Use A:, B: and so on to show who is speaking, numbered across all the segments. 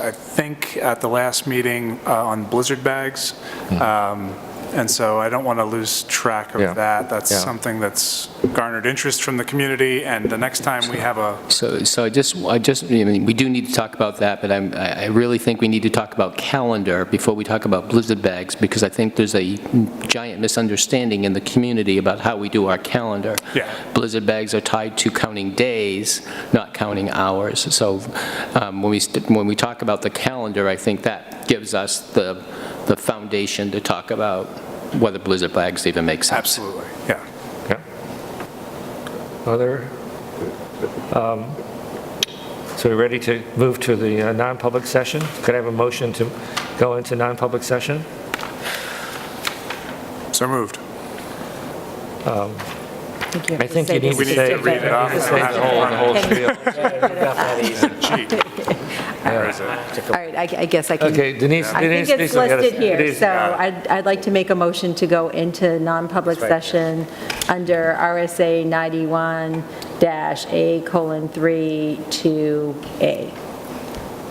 A: I think, at the last meeting uh, on Blizzard bags. Um, And so I don't want to lose track
B: Hmm. Yeah.
A: of that. That's
B: Yeah.
A: something that's garnered interest from the community, and the next time we have a,
C: So, so I just, I just, I mean, we do need to talk about that, but I'm, I I really think we need to talk about calendar before we talk about Blizzard bags, because I think there's a giant misunderstanding in the community about how we do our calendar.
A: Yeah.
C: Blizzard bags are tied to counting days, not counting hours. So um, when we, st- when we talk about the calendar, I think that gives us the, the foundation to talk about whether Blizzard bags even make sense.
A: absolutely, yeah.
B: Yeah. Other, um, so we're ready to move to the uh, non-public session? Could I have a motion to go into non-public session?
A: So moved.
B: I think you need
A: We
B: to
A: need to
B: say.
A: read it off. Gee, where is it?
D: All right, I I guess I can.
B: Okay, Denise,
D: I
B: Denise.
D: think it's
B: Denise, we gotta-
D: listed here,
B: Denise,
D: so I'd I'd like to make a motion to go into non-public session under RSA 91-A colon 3 to A,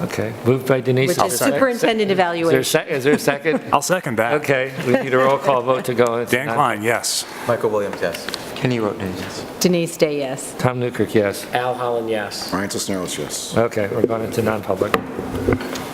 B: Okay, moved by Denise.
D: which is
B: Is there a sec-
D: superintendent
B: Is there a
D: evaluation.
B: sec- is there a second?
A: I'll second that.
B: Okay, we need a roll call vote to go into.
A: Dan
B: non-
A: Klein, yes.
E: Michael Williams, yes.
F: Kenny Roten, yes.
D: Denise Day, yes.
B: Tom Newkirk, yes.
G: Al Holland, yes.
H: Ryan Sisnarles, yes.
B: Okay, we're going into non-public.